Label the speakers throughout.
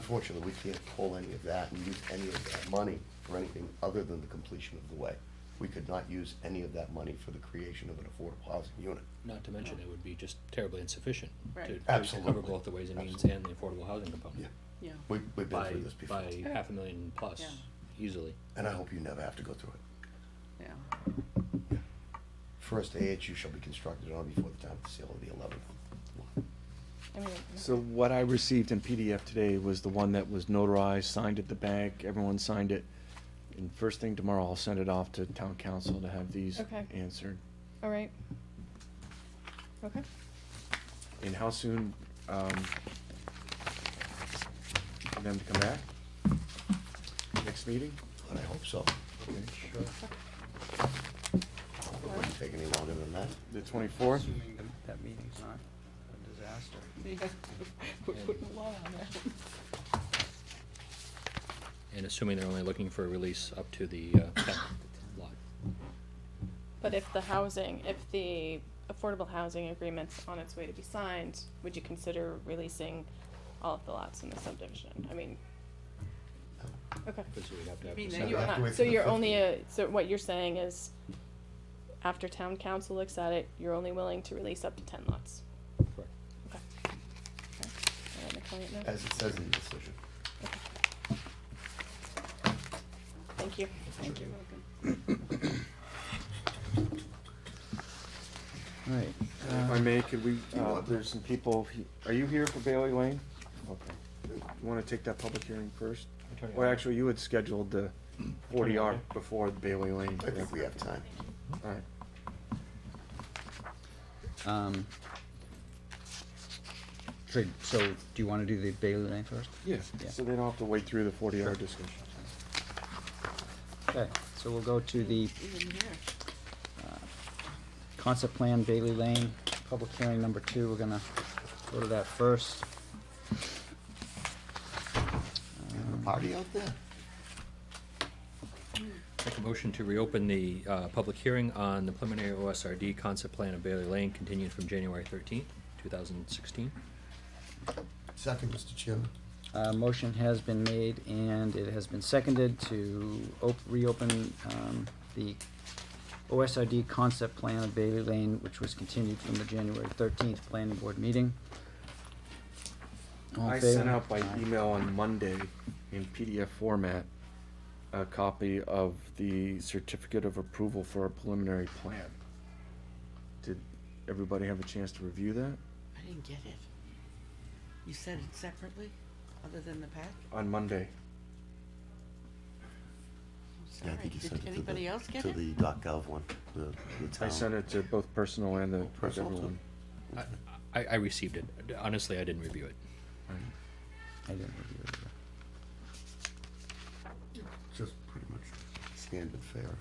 Speaker 1: Unfortunately, we can't pull any of that and use any of that money for anything other than the completion of the way. We could not use any of that money for the creation of an affordable housing unit.
Speaker 2: Not to mention, it would be just terribly insufficient
Speaker 3: Right.
Speaker 2: to- to
Speaker 1: Absolutely.
Speaker 2: cover both the ways and means and the affordable housing component.
Speaker 3: Yeah,
Speaker 1: We, we've been
Speaker 2: By,
Speaker 1: through this before,
Speaker 2: by half a million plus,
Speaker 3: Yeah.
Speaker 2: easily.
Speaker 1: and I hope you never have to go through it.
Speaker 3: yeah,
Speaker 1: First AHU shall be constructed on before the time of the sale of the eleventh.
Speaker 3: I mean,
Speaker 4: So what I received in PDF today was the one that was notarized, signed at the bank, everyone signed it. And first thing tomorrow, I'll send it off to town council to have these
Speaker 3: Okay.
Speaker 4: answered.
Speaker 3: all right. Okay,
Speaker 4: And how soon, um, for them to come back? Next meeting?
Speaker 1: And I hope so. It wouldn't take any longer than that.
Speaker 4: The twenty-fourth?
Speaker 5: Assuming that- that meeting's not a disaster.
Speaker 3: yeah, we're putting a lot on that.
Speaker 2: And assuming they're only looking for a release up to the, uh, tenth lot.
Speaker 6: But if the housing, if the affordable housing agreement's on its way to be signed, would you consider releasing all of the lots in the subdivision? I mean, okay.
Speaker 2: Because we'd have to have
Speaker 3: mean, then
Speaker 2: the seven-
Speaker 3: you
Speaker 1: have to
Speaker 6: Not-
Speaker 1: wait for
Speaker 6: So
Speaker 1: the
Speaker 6: you're only,
Speaker 1: 50.
Speaker 6: uh, so what you're saying is, after town council looks at it, you're only willing to release up to ten lots?
Speaker 2: Correct.
Speaker 6: Okay. Okay. Am I making it now?
Speaker 1: As it says in the decision.
Speaker 6: Thank you.
Speaker 3: Thank you, Logan.
Speaker 4: Right. If I may, could we, uh,
Speaker 1: want-
Speaker 4: there's some people, he- are you here for Bailey Lane? Okay. You wanna take that public hearing first?
Speaker 2: Attorney
Speaker 4: Well,
Speaker 2: Allen.
Speaker 4: actually, you had scheduled the forty R before Bailey Lane.
Speaker 1: I think we have time.
Speaker 4: All right.
Speaker 5: Um, So, so do you wanna do the Bailey Lane first?
Speaker 4: Yeah,
Speaker 5: Yeah.
Speaker 4: so they don't have to wait through the forty R discussion.
Speaker 5: Okay, so we'll go to the uh,
Speaker 3: Even here,
Speaker 5: concept plan Bailey Lane, public hearing number two, we're gonna go to that first.
Speaker 1: Party out there?
Speaker 2: Make a motion to reopen the, uh, public hearing on the preliminary OSRD concept plan of Bailey Lane continued from January thirteenth, two thousand sixteen.
Speaker 1: Second, Mr. Chairman.
Speaker 5: Uh, motion has been made and it has been seconded to op- reopen, um, the OSRD concept plan of Bailey Lane, which was continued from the January thirteenth planning board meeting. All in
Speaker 4: I sent
Speaker 5: favor?
Speaker 4: out by
Speaker 5: Aye.
Speaker 4: email on Monday in PDF format, a copy of the certificate of approval for a preliminary plan. Did everybody have a chance to review that
Speaker 7: I didn't get it. You said it separately, other than the pack?
Speaker 4: on Monday?
Speaker 7: I'm
Speaker 1: Yeah, I
Speaker 7: sorry.
Speaker 1: think you sent it
Speaker 7: Did
Speaker 1: to the.
Speaker 7: anybody else get
Speaker 1: To
Speaker 7: it?
Speaker 1: the dot gov one, the, the town.
Speaker 4: I sent it to both personal and the, with
Speaker 1: Personal too.
Speaker 4: everyone.
Speaker 2: I, I received it. Honestly, I didn't review it.
Speaker 5: I didn't review it either.
Speaker 1: Just pretty much standard fare.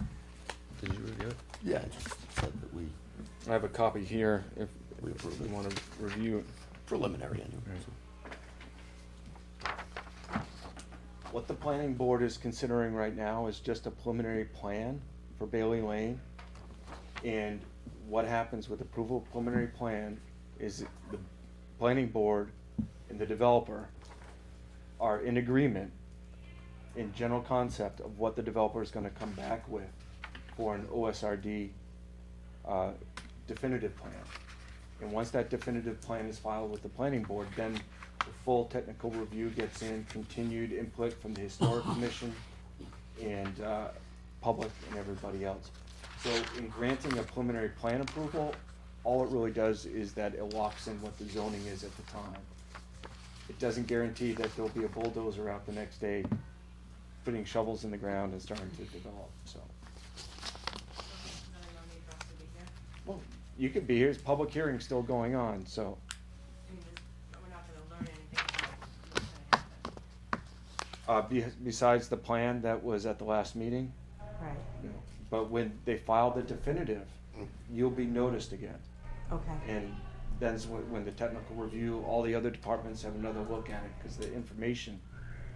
Speaker 5: Did you review it?
Speaker 1: Yeah, it just said that we,
Speaker 4: I have a copy here if
Speaker 1: We approve
Speaker 4: you
Speaker 1: it.
Speaker 4: wanna review it.
Speaker 1: preliminary anyway.
Speaker 4: What the planning board is considering right now is just a preliminary plan for Bailey Lane. And what happens with approval of preliminary plan is the planning board and the developer are in agreement in general concept of what the developer is gonna come back with for an OSRD uh, definitive plan. And once that definitive plan is filed with the planning board, then the full technical review gets in, continued input from the historic commission and, uh, public and everybody else. So in granting a preliminary plan approval, all it really does is that it locks in what the zoning is at the time. It doesn't guarantee that there'll be a bulldozer out the next day putting shovels in the ground and starting to develop, so. Well, you could be here, it's public hearing still going on, so. Uh, be- besides the plan that was at the last meeting,
Speaker 8: Right,
Speaker 4: you know, but when they file the definitive, you'll be noticed again.
Speaker 8: okay,
Speaker 4: And that's when, when the technical review, all the other departments have another look at it, cause the information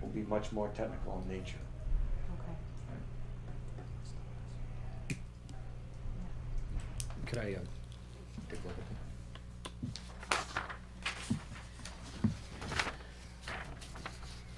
Speaker 4: will be much more technical in nature.
Speaker 8: okay.
Speaker 2: Could I, uh, take a look at